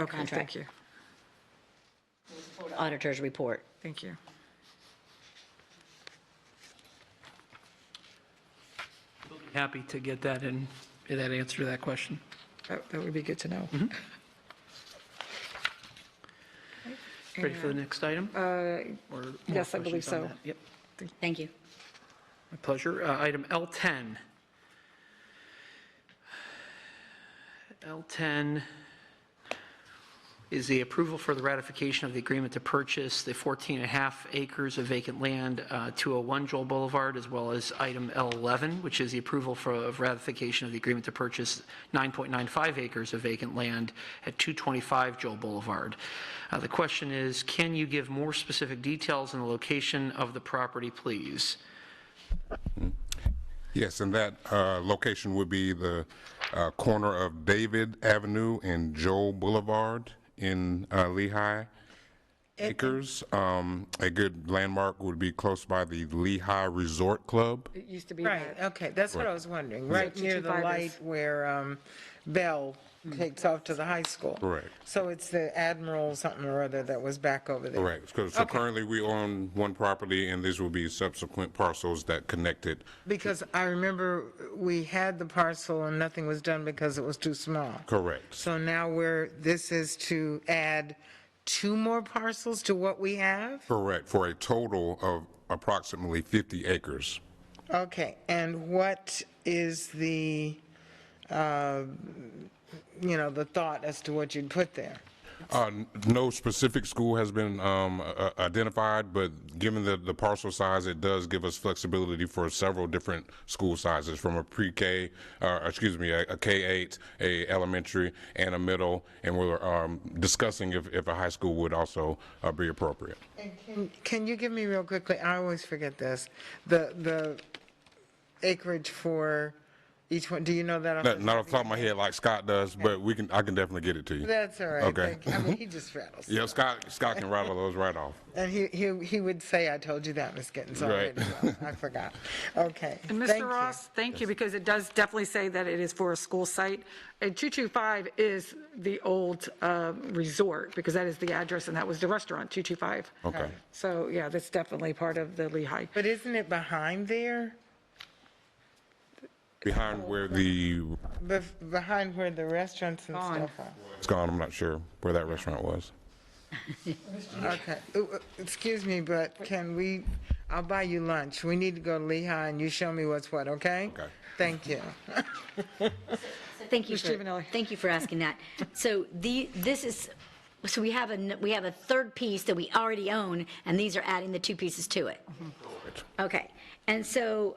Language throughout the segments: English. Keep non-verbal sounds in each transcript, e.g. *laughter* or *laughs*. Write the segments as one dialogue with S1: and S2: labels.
S1: Okay, thank
S2: Contract.
S1: you,
S2: auditor's report.
S1: thank you.
S3: Happy to get that in, that answer to that question.
S1: That that would be good to know.
S3: Ready for the next item?
S1: Uh,
S3: Or more
S1: yes, I
S3: questions
S1: believe
S3: on
S1: so.
S3: that? Yep,
S2: Thank you.
S3: my pleasure. Uh, Item L10. L10 is the approval for the ratification of the agreement to purchase the 14 and a half acres of vacant land, uh, 201 Joel Boulevard, as well as item L11, which is the approval for, of ratification of the agreement to purchase 9.95 acres of vacant land at 225 Joel Boulevard. Uh, The question is, can you give more specific details on the location of the property, please?
S4: Yes, and that uh, location would be the uh, corner of David Avenue and Joel Boulevard in uh, Lehigh Acres. Um, A good landmark would be close by the Lehigh Resort Club.
S1: It used to be
S5: Right,
S1: that.
S5: okay, that's what I was wondering, right
S1: Yeah.
S5: near the
S1: 225
S5: light
S1: is-
S5: where um, Bell takes off to the high school.
S4: Correct.
S5: So it's the Admiral something or other that was back over there.
S4: Correct. 'Cause- So currently, we own one property, and these will be subsequent parcels that connected.
S5: Because I remember we had the parcel and nothing was done because it was too small.
S4: Correct.
S5: So now we're, this is to add two more parcels to what we have?
S4: Correct, for a total of approximately 50 acres.
S5: Okay, and what is the, uh, you know, the thought as to what you'd put there?
S4: Uh, n- No specific school has been um, i- i- identified, but given the, the parcel size, it does give us flexibility for several different school sizes, from a pre-K, uh, excuse me, a a K-8, a elementary, and a middle, and we're um, discussing if, if a high school would also uh, be appropriate.
S5: And can- Can you give me real quickly, I always forget this, the, the acreage for each one, do you know that? off
S4: Not
S5: the
S4: not
S5: top
S4: off the top of my head like Scott does, but we can, I can definitely get it to
S5: of-
S4: you.
S5: That's all right,
S4: Okay. Mm-hmm.
S5: thank you. I mean, he just rattles.
S4: Yeah, Scott, Scott can rattle those right off.
S5: And he, he, he would say, I told you that, Ms. Gittens, already,
S4: Right.
S5: Well, I forgot. Okay.
S1: And
S5: thank
S1: Mr.
S5: you.
S1: Ross, thank you, because it does definitely say that it is for a school site. And 225 is the old uh, resort, because that is the address, and that was the restaurant, 225.
S4: Okay.
S1: So, yeah, that's definitely part of the Lehigh.
S5: But isn't it behind there?
S4: Behind where the,
S5: Bef- Behind where the restaurants and
S1: Gone.
S5: stuff are?
S4: it's gone, I'm not sure where that restaurant was.
S5: Okay, Uh, uh, excuse me, but can we, I'll buy you lunch. We need to go to Lehigh and you show me what's what, okay?
S4: Okay.
S5: Thank you.
S2: Thank you
S1: Ms.
S2: for,
S1: Giovanelli.
S2: thank you for asking *laughs* that. So the, this is, so we have a, n- we have a third piece that we already own, and these are adding the two pieces to it. Okay, and so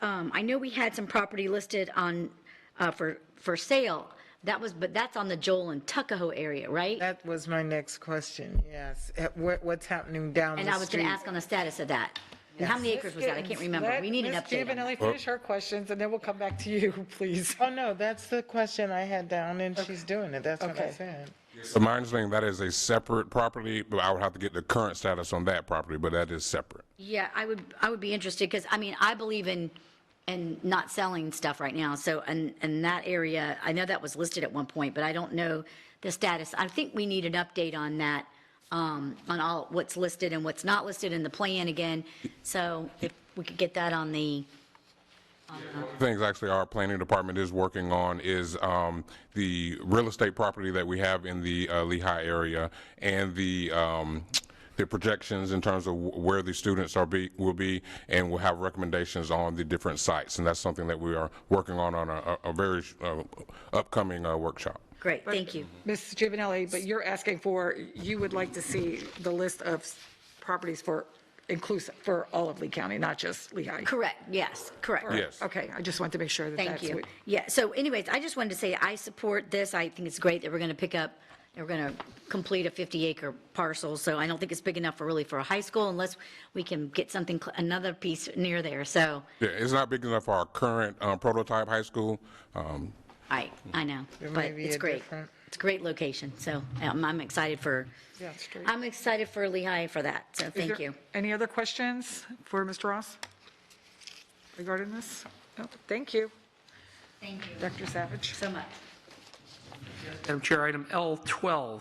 S2: um, I know we had some property listed on, uh, for, for sale. That was, but that's on the Joel and Tuckahoe area, right?
S5: That was my next question, yes. Uh, what- What's happening down the street?
S2: And I was going to ask on the status of that. And how many acres was that? I can't remember. We need an
S1: Ms.
S2: update on that.
S1: Giovanelli, finish her questions, and then we'll come back to you, *laughs* please.
S5: Oh, no, that's the question I had down and she's doing it. That's what I
S1: Okay.
S5: said.
S4: So my understanding, that is a separate property, but I would have to get the current status on that property, but that is separate.
S2: Yeah, I would, I would be interested, because, I mean, I believe in, in not selling stuff right now, so, and, and that area, I know that was listed at one point, but I don't know the status. I think we need an update on that, um, on all, what's listed and what's not listed in the plan again, so if we could get that on the,
S4: Things actually our planning department is working on is um, the real estate property that we have in the uh, Lehigh area and the, um, the projections in terms of wh- where the students are be, will be, and we'll have recommendations on the different sites. And that's something that we are working on on a, a a very uh, upcoming uh, workshop.
S2: great, thank you.
S1: Ms. Giovanelli, but you're asking for, you would like to see the list of properties for inclusive, for all of Lee County, not just Lehigh?
S2: Correct, yes, correct.
S4: Yes.
S1: Okay, I just want to make sure that
S2: Thank
S1: that's
S2: you.
S1: what.
S2: Yeah, so anyways, I just wanted to say I support this. I think it's great that we're going to pick up, that we're going to complete a 50-acre parcel. So I don't think it's big enough for really for a high school unless we can get something, cl- another piece near there. So
S4: Yeah, it's not big enough for our current uh, prototype high school. Um,
S2: I, I know, but
S5: may be
S2: it's
S5: a
S2: great.
S5: different-
S2: It's a great location. So um, I'm excited for, I'm excited for Lehigh for that. So
S1: Is
S2: thank
S1: there
S2: you.
S1: Any other questions for Mr. Ross regarding this? No, Thank you,
S2: Thank you
S1: Dr. Savage.
S2: so much.
S3: Madam Chair, item L12